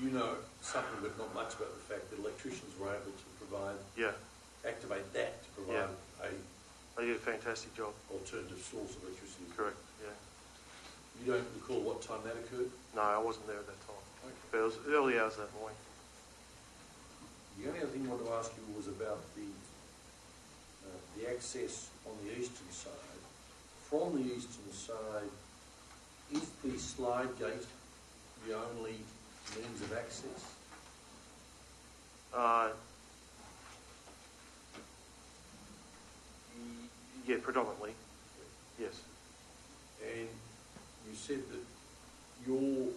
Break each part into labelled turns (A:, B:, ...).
A: know something, but not much about the fact that electricians were able to provide,
B: Yeah,
A: activate that to provide a
B: they did a fantastic job.
A: alternative source of electricity.
B: Correct. Yeah.
A: You don't recall what time that occurred?
B: No, I wasn't there at that time.
A: Okay.
B: But it was early hours that morning.
A: The only other thing I wanted to ask you was about the, uh, the access on the eastern side. From the eastern side, is the slide gate the only means of access?
B: Uh, y- yeah, predominantly. Yes.
A: And you said that your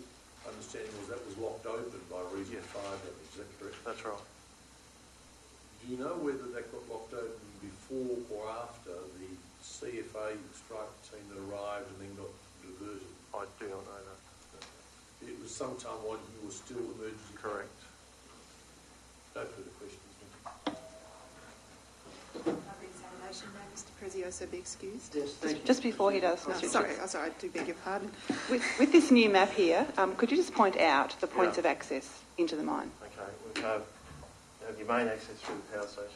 A: understanding was that was locked open by reason of
B: Yeah.
A: fire damage, is that correct?
B: That's right.
A: Do you know whether that got locked open before or after the CFA strike team that arrived and then got diverted?
B: I do not know that.
A: It was sometime while you were still emergency.
B: Correct.
A: No further questions.
C: Examination may Mr. Prezioso be excused?
D: Yes, thank you.
E: Just before he does,
C: No,
E: Mr.
C: sorry, oh, sorry, I do beg your pardon.
E: With, with this new map here, um, could you just point out the points
B: Yeah.
E: of access into the mine?
B: Okay, we have, have your main access through the power station.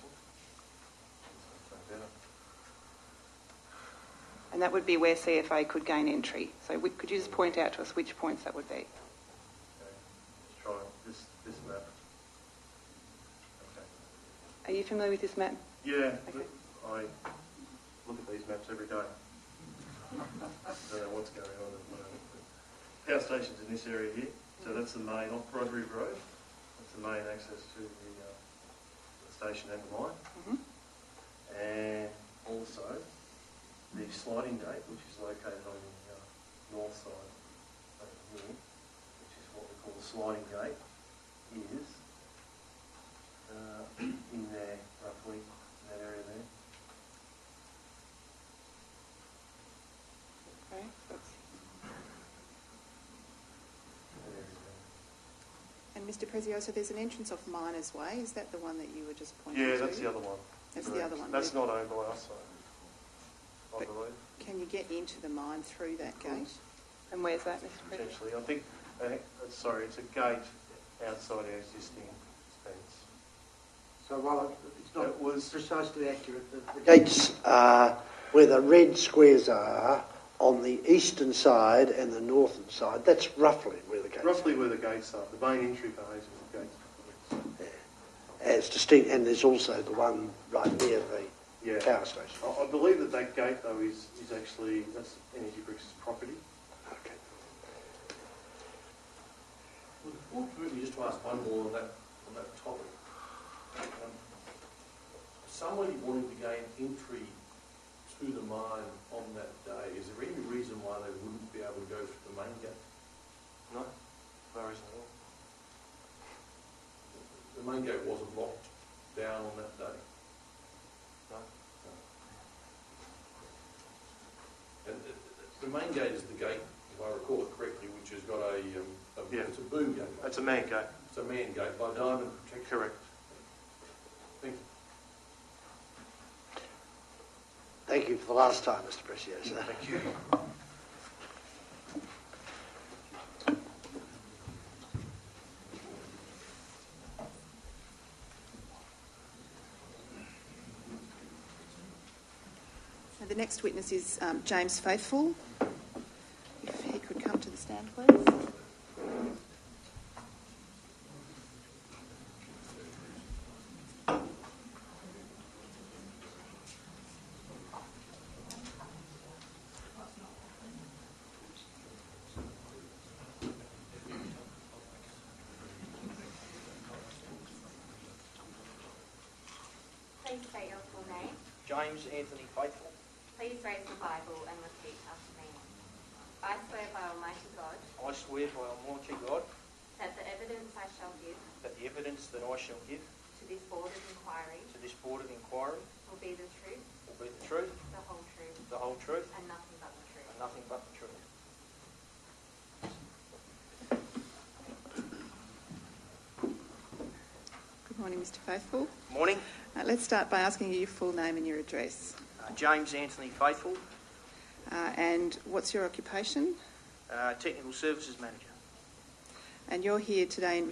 E: And that would be where CFA could gain entry. So we, could you just point out to us which points that would be?
B: Okay, Let's try this, this map. Okay.
E: Are you familiar with this map?
B: Yeah,
E: Okay.
B: I look at these maps every day. Don't know what's going on at the moment. but Power station's in this area here, so that's the main, off Broadbury Road. That's the main access to the, uh, the station and the mine.
E: Mm-hmm.
B: And also the sliding gate, which is located on the uh, north side of the hill, which is what we call the sliding gate, is uh, in there roughly, in that area there.
E: Okay, so that's-
B: That area there.
C: And Mr. Prezioso, there's an entrance off Miners Way, is that the one that you were just pointing to?
B: Yeah, that's the other one.
C: That's the
B: Correct.
C: other one,
B: That's
C: yeah.
B: not owned by us, I
C: But-
B: believe,
C: Can you get into the mine through that gate?
E: And where's that, Mr. President?
B: potentially. I think, I think, uh, sorry, it's a gate outside our existing fence.
D: So while it's
B: That was-
D: not precisely accurate, the- the gates are where the red squares are on the eastern side and the northern side. That's roughly where the gates are.
B: Roughly where the gates are, the main entry for Hazelwood Gates.
D: As distinct, and there's also the one right near
B: Yeah.
D: the power station.
B: I, I believe that that gate though is, is actually, that's Energy Bricks' property.
D: Okay.
A: Would the board permit me just to ask one more on that, on that topic? Um, Somebody wanted to gain entry to the mine on that day. Is there any reason why they wouldn't be able to go through the main gate?
B: No, no reason at all.
A: The main gate wasn't locked down on that day.
B: No.
A: And the- the- the main gate is the gate, if I recall it correctly, which has got a, um, a-
B: Yeah.
A: it's a boom gate.
B: That's a man gate.
A: It's a man gate by diamond protection.
B: Correct.
A: Thank you.
D: Thank you for the last time, Mr. Preciosa.
B: Thank you.
C: So The next witness is um, James Faithful. If he could come to the stand, please.
F: Please state your full name.
G: James Anthony Faithful,
F: Please raise the Bible and repeat after me. I swear by Almighty God
G: I swear by Almighty God
F: that the evidence I shall give
G: that the evidence that I shall give
F: to this board of inquiry
G: to this Board of Inquiry
F: will be the truth,
G: will be the truth,
F: the whole truth,
G: the whole truth,
F: and nothing but the truth.
G: and nothing but the truth.
C: Good morning, Mr. Faithful.
G: Morning,
C: Uh, Let's start by asking you your full name and your address.
G: Uh, James Anthony Faithful,
C: Uh, And what's your occupation?
G: uh, Technical Services Manager.
C: And you're here today in